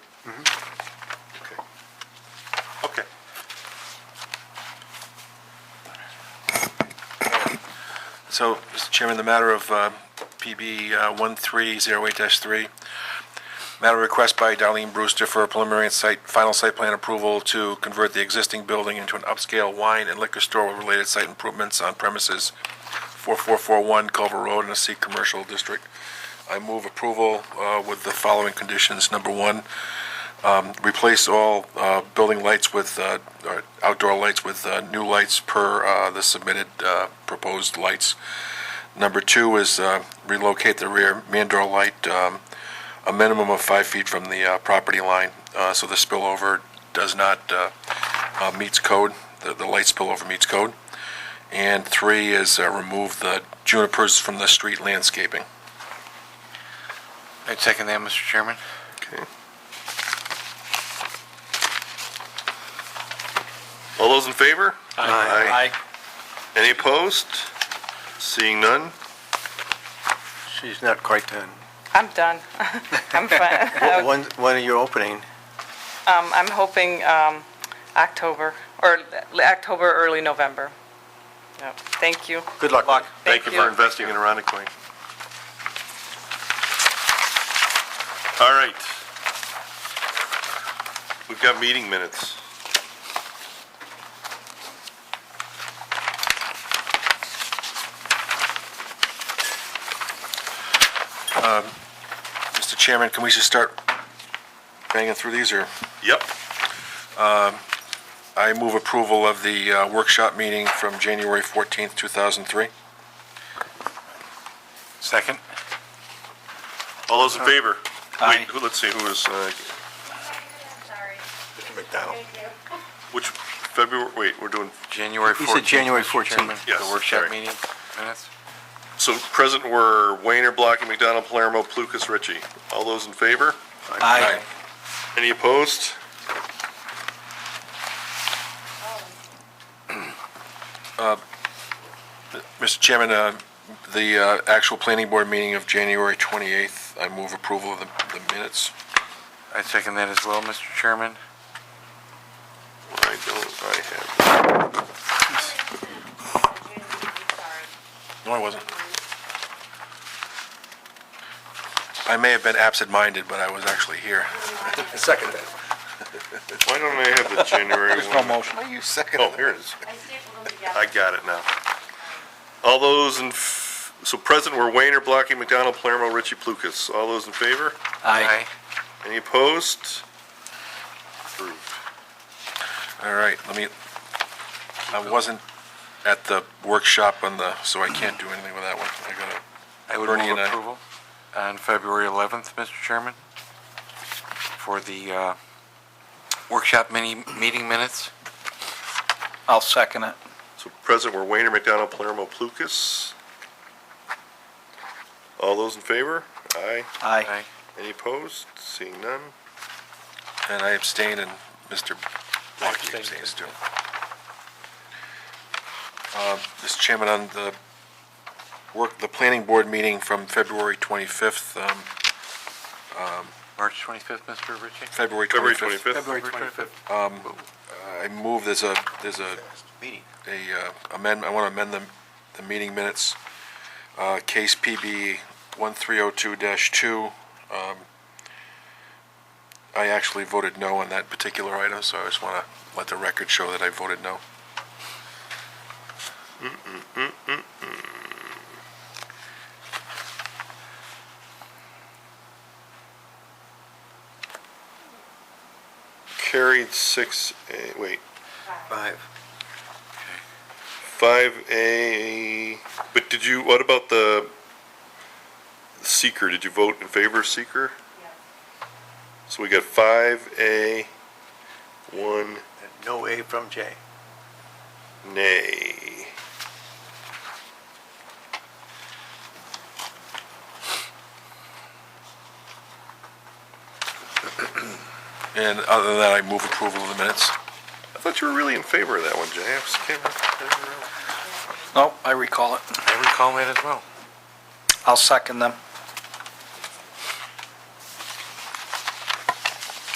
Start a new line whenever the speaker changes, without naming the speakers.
Okay. Okay. So, Mr. Chairman, the matter of uh, PB uh, 1308-3, matter of request by Darlene Brewster for a preliminary and site, final site plan approval to convert the existing building into an upscale wine and liquor store with related site improvements on premises 4441 Culver Road in a C Commercial District. I move approval uh, with the following conditions. Number one, um, replace all uh, building lights with, uh, or outdoor lights with uh, new lights per uh, the submitted uh, proposed lights. Number two is uh, relocate the rear main door light um, a minimum of five feet from the uh, property line, uh, so the spillover does not, uh, uh, meets code, the the light spillover meets code. And three is uh, remove the junipers from the street landscaping.
I'd second that, Mr. Chairman.
Okay.
All those in favor?
Aye.
Any opposed? Seeing none?
She's not quite done.
I'm done. I'm fine.
When, when are you opening?
Um, I'm hoping, um, October, or l- October, early November. Yep. Thank you.
Good luck.
Thank you for investing in Aronic Queen. All right. We've got meeting minutes.
Mr. Chairman, can we just start banging through these, or? Um,
Yep.
I move approval of the uh, workshop meeting from January 14th, 2003.
Second?
All those in favor?
Aye.
Wait, who- let's see, who was, uh,
Sorry.
McDonald.
Thank you.
which, February, wait, we're doing,
January 14th.
You said January
Mr. Chairman,
14th.
Yes,
The workshop
sorry.
meeting minutes?
so present were Wayner, Blocky, McDonald, Palermo, Plukas, Ritchie. All those in favor?
Aye.
Any opposed?
Mr. Chairman, uh, the uh, actual planning board meeting of January 28th, I move approval of the the minutes.
I'd second that as well, Mr. Chairman.
I don't, I have,
No, I wasn't. I may have been absent-minded, but I was actually here. Second that.
why don't I have the January one?
motion. Are you second?
Oh, here it is.
I stapled them together.
I got it now. All those in, f- so present were Wayner, Blocky, McDonald, Palermo, Ritchie, Plukas. All those in favor?
Aye.
Any opposed? Approved.
All right, let me, I wasn't at the workshop on the, so I can't do anything with that one. I gotta
I would
Bernie
move
and I.
approval on February 11th, Mr. Chairman, for the uh, workshop mini, meeting minutes.
I'll second it.
So present were Wayner, McDonald, Palermo, Plukas. All those in favor? Aye.
Aye.
Any opposed? Seeing none?
And I abstain, and Mr. Blocky abstains too. Uh, Mr. Chairman, on the work, the planning board meeting from February 25th, um,
March 25th, Mr. Ritchie?
February
February
25th,
twenty-fifth?
25th.
I move there's a, there's a,
Meeting.
a uh, amend, I want to amend the, the meeting minutes. Uh, Case PB 1302-2, um, I actually voted no on that particular item, so I just want to let the record show that I voted no.
Carried six, A. wait,
Five.
five A, but did you, what about the seeker? Did you vote in favor of seeker? So we got five A, one
And No A from J.
nay.
And other than that, I move approval of the minutes.
I thought you were really in favor of that one, Jay. I was- can't remember.
Nope, I recall it.
I recall that as well.
I'll second them.